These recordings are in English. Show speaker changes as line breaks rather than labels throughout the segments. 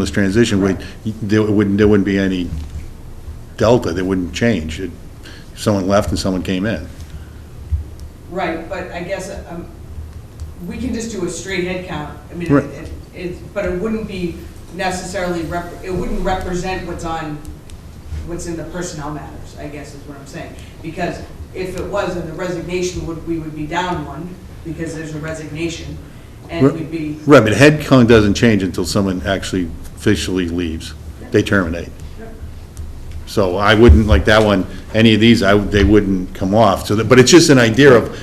this transition, we- there wouldn't, there wouldn't be any delta, there wouldn't change. It- Someone left and someone came in.
Right, but I guess, um, we can just do a straight head count. I mean,
Right.
it, it, but it wouldn't be necessarily rep, it wouldn't represent what's on, what's in the personnel matters, I guess is what I'm saying. Because if it was, then the resignation would, we would be down one, because there's a resignation, and we'd be,
Right, but head count doesn't change until someone actually officially leaves. They terminate. So I wouldn't, like that one, any of these, I, would- they wouldn't come off. So, that- but it's just an idea of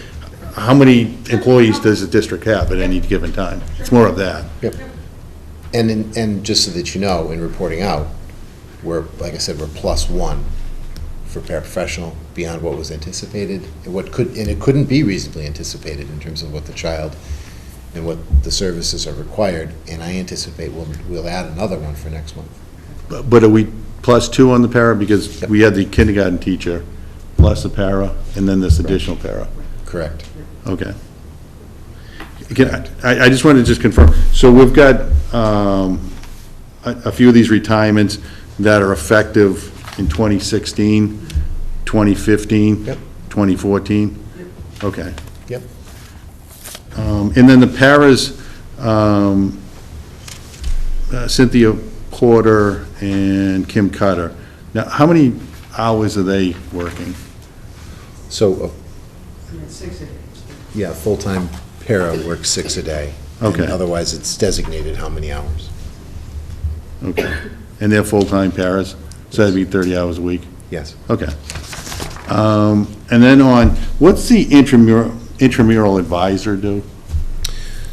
how many employees does the district have at any given time? It's more of that.
And, in- and just so that you know, in reporting out, we're, like I said, we're plus one for paraprofessional beyond what was anticipated, and what could, and it couldn't be reasonably anticipated in terms of what the child and what the services are required, and I anticipate we'll, we'll add another one for next month.
But but are we plus two on the para? Because we had the kindergarten teacher, plus the para, and then this additional para.
Correct.
Okay. Again, I, I just wanted to just confirm, so we've got um, a a few of these retirements that are effective in 2016, 2015?
Yep.
2014? Okay.
Yep.
Um, And then the paras, um, uh, Cynthia Porter and Kim Cutter. Now, how many hours are they working?
So, uh,
you know, six of these.
yeah, full-time para works six a day. and
Okay.
Otherwise, it's designated how many hours.
Okay. And they're full-time paras, so that'd be 30 hours a week?
Yes.
Okay. Um, And then on, what's the intramural, intramural advisor do?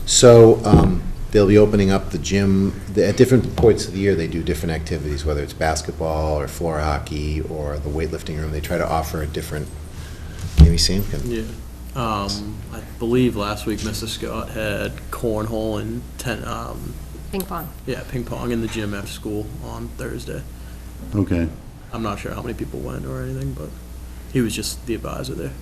So um, they'll be opening up the gym, the- at different points of the year, they do different activities, whether it's basketball or floor hockey or the weightlifting room. They try to offer a different, maybe Sam can,
Yeah. Um, I believe last week Mr. Scott had cornhole and ten, um,
Ping pong.
yeah, ping pong in the gym after school on Thursday.
Okay.
I'm not sure how many people went or anything, but he was just the advisor there.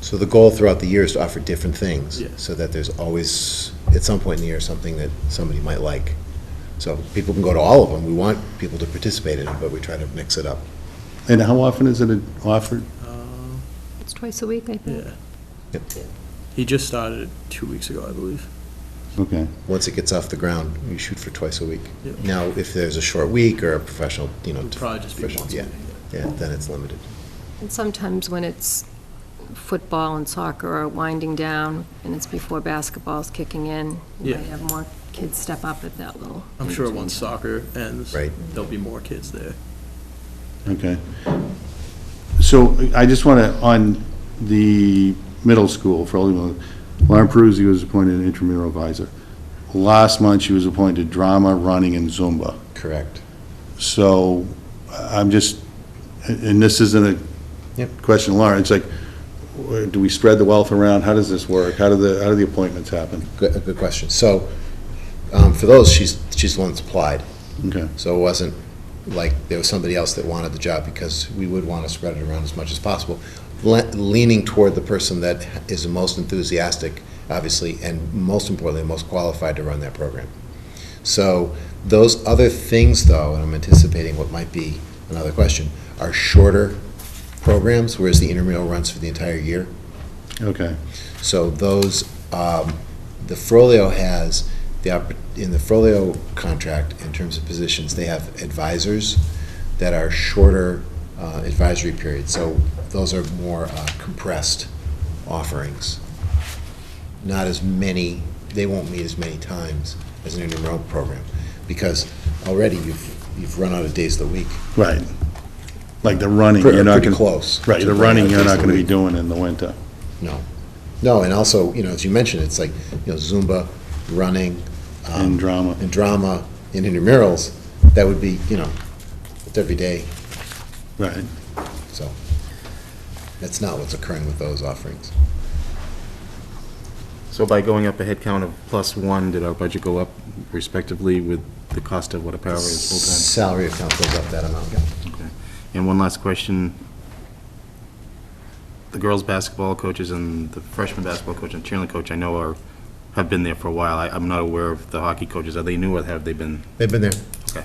so the goal throughout the year is to offer different things.
Yeah.
So that there's always, at some point in the year, something that somebody might like. So people can go to all of them. We want people to participate in it, but we try to mix it up.
And how often is it offered?
Uh,
It's twice a week, I think.
yeah.
Yep.
He just started it two weeks ago, I believe.
Okay.
Once it gets off the ground, we shoot for twice a week.
Yep.
Now, if there's a short week or a professional, you know.
It'll probably just be
professional-
once a
Yeah,
week.
yeah, then it's limited.
And sometimes when it's football and soccer are winding down, and it's before basketball's kicking in, you
Yeah.
might have more kids step up at that little.
I'm sure once soccer ends,
Right.
there'll be more kids there.
Okay. So I just want to, on the middle school, for all you know, Lauren Peruzzi was appointed intramural advisor. Last month, she was appointed drama, running, and Zumba.
Correct.
So I- I'm just, and this isn't a
Yep.
question, Lauren, it's like, wh- do we spread the wealth around? How does this work? How do the, how do the appointments happen?
Good, a good question. So, um, for those, she's, she's the one that's applied.
Okay,
So it wasn't like there was somebody else that wanted the job because we would want to spread it around as much as possible. Le- Leaning toward the person that is the most enthusiastic, obviously, and most importantly, most qualified to run that program. So those other things, though, and I'm anticipating what might be another question, are shorter programs, whereas the intramural runs for the entire year.
okay,
So those, um, the Frollo has, the, oppor- in the Frollo contract, in terms of positions, they have advisors that are shorter uh, advisory periods. So those are more uh, compressed offerings. Not as many, they won't meet as many times as an intramural program, because already you've, you've run out of days of the week.
right. Like the running,
Pretty-
you're not
Pretty
going to.
close.
Right,
to
the running,
running out
you're
days
not
of the
going to be
week.
doing in the winter.
No. No, and also, you know, as you mentioned, it's like, you know, Zumba, running. um,
And drama.
And drama, and intramurals, that would be, you know, it's every day,
Right.
so. That's not what's occurring with those offerings.
So by going up a head count of plus one, did our budget go up respectively with the cost of what a power is
Salary account goes up that amount.
full-time? Okay. And one last question. The girls' basketball coaches and the freshman basketball coach and cheerleading coach, I know are, have been there for a while. I- I'm not aware of the hockey coaches. Are they new or have they been?
They've been there.
Okay.